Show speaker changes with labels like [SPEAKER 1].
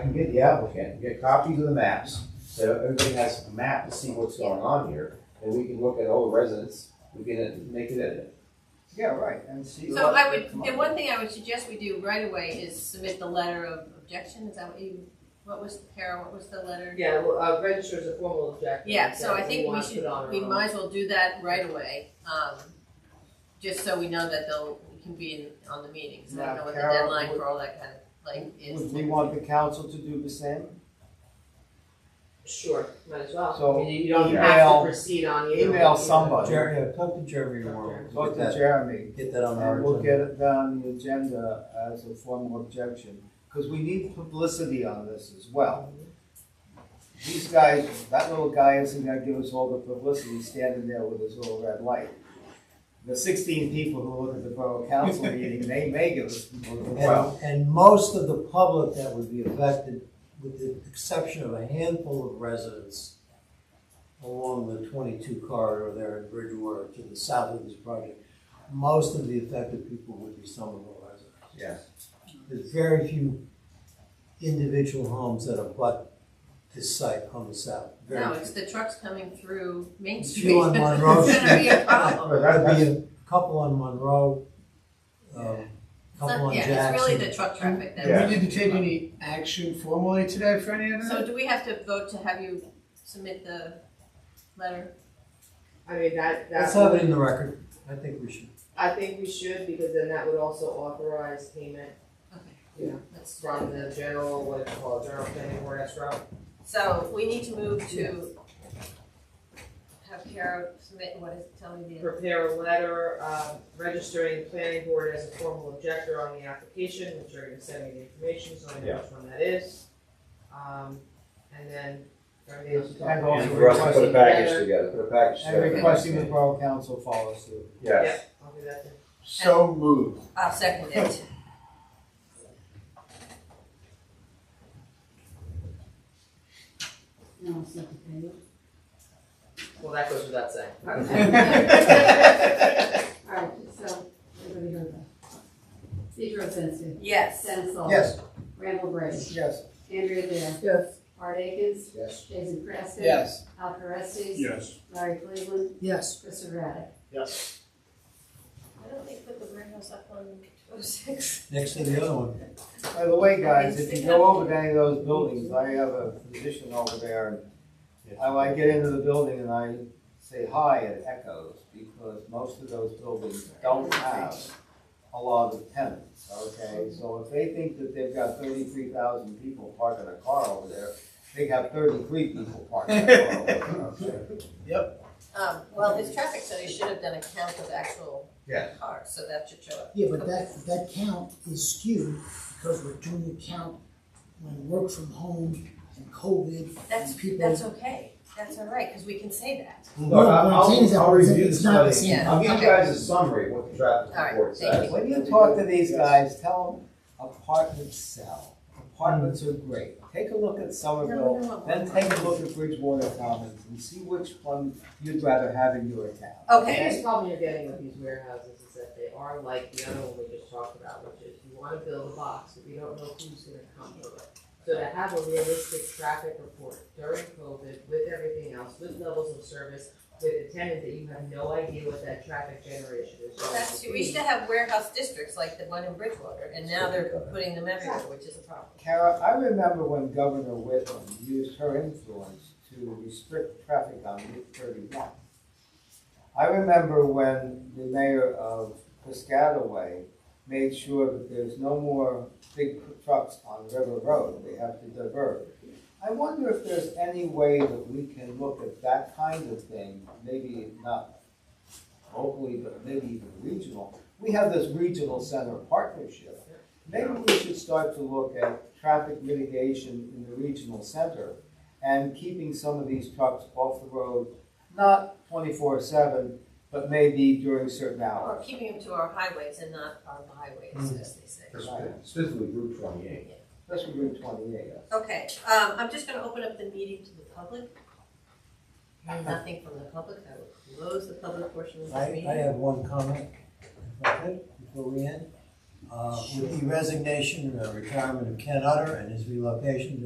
[SPEAKER 1] and get the applicant, get copies of the maps, so everybody has a map to see what's going on here, and we can look at all the residents, we can make it edit.
[SPEAKER 2] Yeah, right, and see.
[SPEAKER 3] So
[SPEAKER 2] what
[SPEAKER 3] I
[SPEAKER 2] they
[SPEAKER 3] would,
[SPEAKER 2] come
[SPEAKER 3] the
[SPEAKER 2] up
[SPEAKER 3] one thing I would suggest we do right away is submit the letter of objection, is that what you, what was, Kara, what was the letter?
[SPEAKER 4] Yeah, well, uh, register as a formal objection.
[SPEAKER 3] Yeah, so I
[SPEAKER 4] that
[SPEAKER 3] think we
[SPEAKER 4] wanna
[SPEAKER 3] should,
[SPEAKER 4] put on our
[SPEAKER 3] we
[SPEAKER 2] Uh,
[SPEAKER 4] own.
[SPEAKER 3] might as well do that right away, um, just so we know that they'll, we can be in, on the meetings, I don't know what the
[SPEAKER 2] Now, Carol,
[SPEAKER 3] deadline
[SPEAKER 2] would-
[SPEAKER 3] for all that kind of, like,
[SPEAKER 2] with.
[SPEAKER 3] is.
[SPEAKER 2] Would we want the council to do the same?
[SPEAKER 4] Sure, might as well.
[SPEAKER 2] So
[SPEAKER 4] I mean, you don't have
[SPEAKER 2] email-
[SPEAKER 4] to proceed on either.
[SPEAKER 2] Email
[SPEAKER 4] one.
[SPEAKER 2] somebody,
[SPEAKER 5] Jeremy, uh, talk to Jeremy tomorrow.
[SPEAKER 2] talk
[SPEAKER 5] Get
[SPEAKER 2] to
[SPEAKER 5] that-
[SPEAKER 2] Jeremy,
[SPEAKER 5] Get that on our.
[SPEAKER 2] and we'll
[SPEAKER 5] agenda.
[SPEAKER 2] get it down on the agenda as a formal objection, because we need publicity on this as well. These guys, that little guy isn't gonna give us all the publicity standing there with his little red light. The sixteen people who look at the borough council meeting, they may give us.
[SPEAKER 5] And, and most of the public that would be affected, with the exception of a handful of residents along the twenty-two corridor there in Bridgewater to the south of this project, most of the affected people would be Somerville residents.
[SPEAKER 2] Yeah.
[SPEAKER 5] There's very few individual homes that abut this site on the south, very
[SPEAKER 3] No,
[SPEAKER 5] few.
[SPEAKER 3] it's the trucks coming through Main
[SPEAKER 5] Few
[SPEAKER 3] Street.
[SPEAKER 5] on Monroe
[SPEAKER 3] It's gonna be a
[SPEAKER 5] Street.
[SPEAKER 3] problem.
[SPEAKER 5] There'd be a couple on Monroe, um,
[SPEAKER 3] It's
[SPEAKER 5] couple
[SPEAKER 3] not-
[SPEAKER 5] on
[SPEAKER 3] Yeah, it's really
[SPEAKER 5] Jackson.
[SPEAKER 3] the truck traffic that.
[SPEAKER 1] Yeah.
[SPEAKER 6] We didn't take any action formally today for any of
[SPEAKER 3] So
[SPEAKER 6] that?
[SPEAKER 3] do we have to vote to have you submit the letter?
[SPEAKER 4] I mean, that,
[SPEAKER 5] Let's
[SPEAKER 4] that,
[SPEAKER 5] have it
[SPEAKER 4] would-
[SPEAKER 5] in the record, I think we should.
[SPEAKER 4] I think we should, because then that would also authorize payment
[SPEAKER 3] Let's do
[SPEAKER 4] from
[SPEAKER 3] that.
[SPEAKER 4] the general, what it's called, general planning board, that's right.
[SPEAKER 3] So we need to move to have Kara submit, what is, tell me the.
[SPEAKER 4] prepare a letter, uh, registering planning board as a formal objector on the application, which you're gonna send me the information, so I know which one that is. Um, and then everything else. is done.
[SPEAKER 2] And also
[SPEAKER 1] And for us to put a package together, put a package
[SPEAKER 2] And
[SPEAKER 1] together.
[SPEAKER 2] requesting the borough council follow suit.
[SPEAKER 1] Yes.
[SPEAKER 4] Yep, I'll do that then.
[SPEAKER 6] So moved.
[SPEAKER 3] I'll Uh, second it.
[SPEAKER 7] No, it's not the payment.
[SPEAKER 4] Well, that goes without saying.
[SPEAKER 7] All right, so, everybody heard that. Pedro Sensi.
[SPEAKER 3] Yes.
[SPEAKER 7] Dennis Hall.
[SPEAKER 2] Yes.
[SPEAKER 7] Randall Gray.
[SPEAKER 2] Yes.
[SPEAKER 7] Andrea Dale.
[SPEAKER 4] Yes.
[SPEAKER 7] Art Akins.
[SPEAKER 2] Yes.
[SPEAKER 7] Jason Preston.
[SPEAKER 6] Yes.
[SPEAKER 7] Al Caressi.
[SPEAKER 6] Yes.
[SPEAKER 7] Larry Cleveland.
[SPEAKER 6] Yes.
[SPEAKER 7] Christopher Raddick.
[SPEAKER 6] Yes.
[SPEAKER 3] Why don't they put the warehouse up on oh six?
[SPEAKER 5] Next to the other one.
[SPEAKER 2] By the way, guys, if you go over to any of those buildings, I have a physician over there. and I, I get into the building and I say hi, it echoes, because most of those buildings don't have a lot of tenants, okay? So if they think that they've got thirty-three thousand people parking a car over there, they got thirty-three people parking a car over there, okay?
[SPEAKER 3] Um, well, his traffic study should have done a count of actual
[SPEAKER 1] Yeah.
[SPEAKER 3] cars, so that should show up.
[SPEAKER 8] Yeah, but that, that count is skewed because we're doing a count when work from home and COVID
[SPEAKER 3] That's,
[SPEAKER 8] and people.
[SPEAKER 3] that's okay. That's all right, because we can say that.
[SPEAKER 8] No, what I'm saying is that
[SPEAKER 1] I'll
[SPEAKER 8] it's-
[SPEAKER 1] review
[SPEAKER 8] it's
[SPEAKER 1] the
[SPEAKER 8] not the
[SPEAKER 1] study.
[SPEAKER 8] same.
[SPEAKER 3] Yeah.
[SPEAKER 1] I'll give you guys a summary of what the traffic
[SPEAKER 3] All right,
[SPEAKER 1] report
[SPEAKER 3] thank
[SPEAKER 1] says.
[SPEAKER 2] When you talk to these guys, tell them apartments sell. Apartments are great. Take a look at Somerville, then take a look at Bridgewater Commons and see which one you'd rather have in your town.
[SPEAKER 4] The
[SPEAKER 3] Okay.
[SPEAKER 4] biggest problem you're getting with these warehouses is that they are like the other one we just talked about, which is you wanna build a box, but you don't know who's gonna come to it. So to have a realistic traffic report during COVID with everything else, with levels of service, with the tenant that you have no idea what that traffic generation is. going
[SPEAKER 3] That's
[SPEAKER 4] to
[SPEAKER 3] true. We
[SPEAKER 4] be.
[SPEAKER 3] used to have warehouse districts like the one in Bridgewater, and now they're putting them everywhere, which is a problem.
[SPEAKER 2] Kara, I remember when Governor Whitlam used her influence to restrict traffic on Route thirty-one. I remember when the mayor of Piscataway made sure that there's no more big trucks on River Road, they have to divert. I wonder if there's any way that we can look at that kind of thing, maybe not locally, but maybe even regional. We have this regional center partnership. Maybe we should start to look at traffic mitigation in the regional center and keeping some of these trucks off the road, not twenty-four seven, but maybe during certain
[SPEAKER 3] Or
[SPEAKER 2] hours.
[SPEAKER 3] keeping them to our highways and not our byways, as they say.
[SPEAKER 1] Specifically Route twenty-eight.
[SPEAKER 2] Especially Route twenty-eight.
[SPEAKER 3] Okay, um, I'm just gonna open up the meeting to the public. Nothing from the public, I will close the public portion of
[SPEAKER 5] I,
[SPEAKER 3] this
[SPEAKER 5] I
[SPEAKER 3] meeting.
[SPEAKER 5] have one comment, if I could, before we end. Uh, with the resignation and retirement of Ken Utter and his relocation to